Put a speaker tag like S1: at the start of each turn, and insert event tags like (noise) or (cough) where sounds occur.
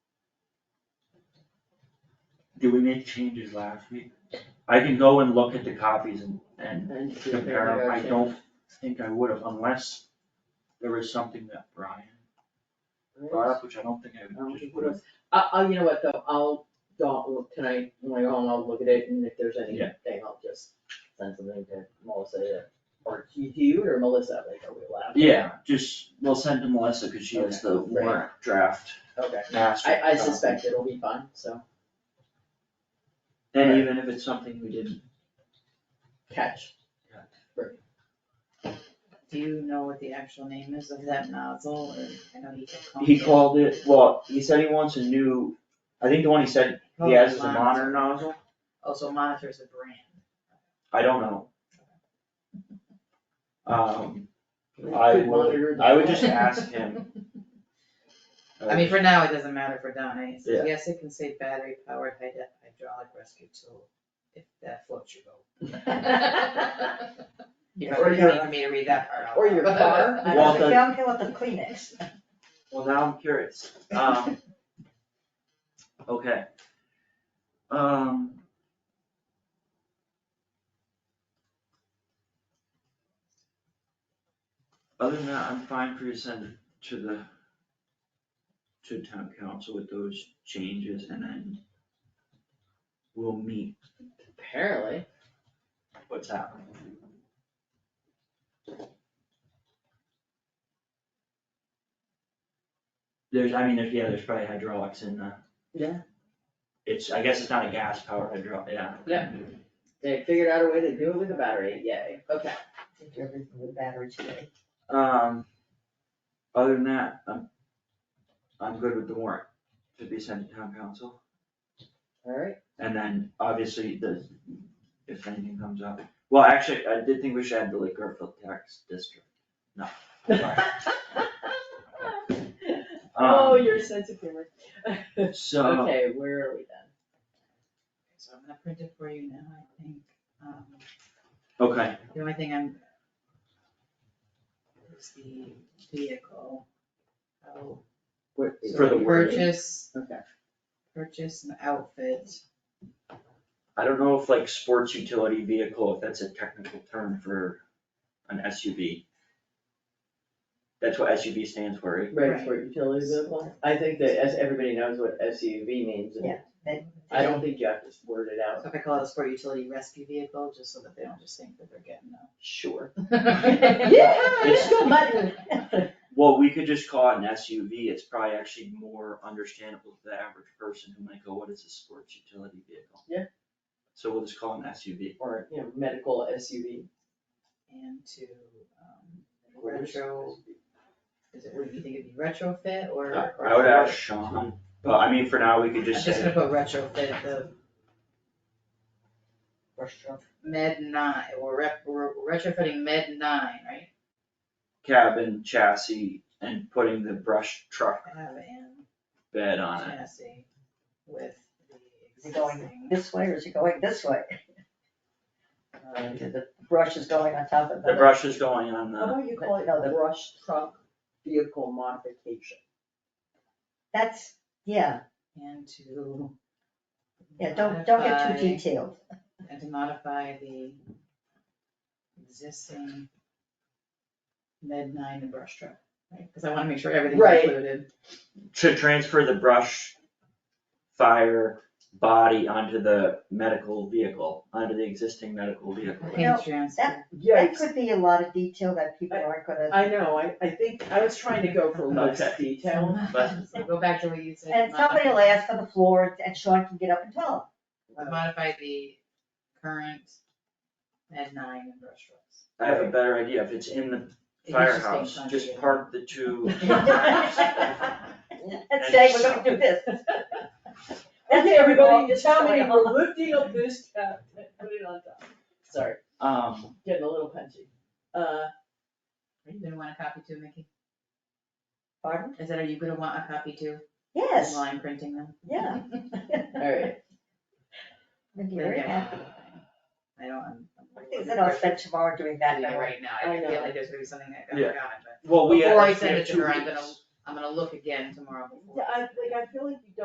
S1: Did we make changes last week? I can go and look at the copies and, and
S2: And see if
S1: compare them,
S2: there are
S1: I
S2: changes.
S1: don't think I would have unless there was something that Brian brought up, which I don't think
S2: I don't
S1: I
S2: think
S1: just would have.
S2: I, I, Uh, you know what though, I'll, don't look tonight, when I go home, I'll look at it, and if there's anything,
S1: Yeah.
S2: I'll just send something to Melissa, to- or to you or Melissa, like, are we allowed?
S1: Yeah, just, we'll send to Melissa, cause she has the
S2: Okay, right.
S1: warrant draft
S2: Okay,
S1: master.
S2: I, I
S1: copy.
S2: suspect it'll be fine, so,
S1: And even if it's something we didn't,
S2: catch,
S3: Do you know what the actual name is of that nozzle, or, I know he just called it.
S1: he called it, well, he said he wants a new, I think the one he said
S2: Oh,
S3: Oh,
S1: he has is a modern nozzle,
S3: Also Oh, monitors a brand.
S1: I don't know. Um,
S2: We
S1: I
S2: could monitor
S1: would,
S2: the
S1: I would
S2: flow.
S1: just ask him. Uh,
S3: I mean, for now, it doesn't matter for Donna, he
S1: Yeah.
S3: says, yes, it can say battery powered hydraulic rescue tool, if that floats your boat. You
S1: Or
S3: don't
S1: your-
S3: need me to read that part out
S2: Or your
S3: loud.
S2: car.
S3: (laughs)
S4: I
S1: Well,
S4: don't
S1: the-
S4: care, I don't care what the Kleenex.
S1: Well, now I'm curious, um. (laughs) Okay. Um. Other than that, I'm fine for you to send it to the. To town council with those changes and then. We'll meet
S2: (laughs) Apparently,
S1: what's happening. There's, I mean, there's, yeah, there's probably hydraulics in the.
S2: Yeah.
S1: It's, I guess it's not a gas powered hydraulic, yeah.
S2: Yeah. they figured out a way to do it with a battery, yay, okay.
S4: Did you ever put a battery today?
S1: Um, other than that, I'm, I'm good with the warrant to be sent to town council.
S2: Alright,
S1: And then obviously the, if anything comes up, well, actually, I did think we should add the Lake Garfield tax district. No.
S2: (laughs)
S1: sorry.
S2: oh,
S1: Um,
S2: your sense of (laughs) humor.
S1: so.
S2: Okay, where are we then?
S3: So I'm gonna print it for you now, I think, um,
S1: Okay,
S3: the only thing I'm. Is the vehicle. Oh.
S2: Where-
S3: so
S1: For the word.
S3: Purchase,
S2: Okay,
S3: purchase an outfit.
S1: I don't know if like sports utility vehicle, if that's a technical term for an SUV. That's what SUV stands for, right?
S2: right, for utility vehicle, I think that as everybody knows what SUV means, and
S4: Yeah. That-
S2: I don't think you have to word it out.
S3: So if I call it a sport utility rescue vehicle, just so that they don't just think that they're getting
S2: Sure.
S3: a.
S2: Yeah,
S1: It's-
S4: Go button.
S1: Well, we could just call it an SUV, it's probably actually more understandable to the average person who might go, what is a sports utility vehicle?
S2: Yeah.
S1: So we'll just call it an SUV.
S2: (laughs) Or, you know, medical SUV.
S3: And to, um, retro, is it, would you think it'd be retrofit or? or-
S1: I would ask Sean, but I mean, for now, we could
S3: I'm
S1: just
S3: just
S1: say,
S3: gonna put retrofit, the
S4: Restaurant.
S3: med nine, or rep, we're retrofitting med nine, right?
S1: cabin, chassis, and putting the brush truck
S3: Have an
S1: bed on it.
S3: chassis with the
S4: Is it going
S3: existing.
S4: this way or is it going this way?
S2: Uh,
S4: The brush is going on top of the. Oh,
S1: The brush is going on
S2: How
S1: the,
S2: about you call it now the brush truck vehicle modification?
S4: That's, yeah,
S3: And to.
S4: yeah, don't, don't get too
S3: modify-
S4: detailed.
S3: and to modify the existing med nine and brush truck, right? Cause I wanna make sure everything's
S2: Right.
S3: included.
S1: to transfer the brush fire body onto the medical vehicle, onto the existing medical vehicle.
S4: know,
S3: Paint transfer.
S4: That could be a lot of detail that people aren't gonna,
S2: I know, I, I think, I was trying to go for less
S1: Okay.
S2: detail.
S1: but-
S3: So Go back to what you said.
S4: and somebody will ask for the floor and Sean can get up and tell
S3: modify- Modify the current med nine and brush trucks.
S1: I have a better idea, if it's in the
S3: It was just
S1: firehouse,
S3: being
S1: just
S3: conjugated.
S1: park the two.
S4: them. And say, we're gonna do
S2: (laughs)
S4: this.
S2: (laughs) Okay, everybody, just tell me,
S4: Going on.
S2: we're lifting up this cap, put it on top. Sorry,
S1: Um,
S2: getting a little punchy. Uh,
S3: Are you gonna want a copy too, Mickey?
S4: Pardon?
S3: I said, are you gonna want a copy too?
S4: Yes,
S3: While I'm printing them?
S4: yeah.
S2: alright,
S4: Maybe
S3: Gonna
S4: you're
S3: get
S4: right.
S3: one. I don't, I'm. I'm a little
S4: Things that I'll spend tomorrow doing that
S3: bit
S4: anyway.
S3: Right now,
S2: I
S3: I
S2: know.
S3: feel like there's gonna be something that got
S1: Yeah.
S3: forgotten, but
S1: well, we have,
S3: Before I
S1: we
S3: send
S1: have
S3: it to
S1: two
S3: her, I'm gonna-
S1: weeks.
S3: I'm gonna look again tomorrow before.
S2: Yeah, I, like, I feel like you don't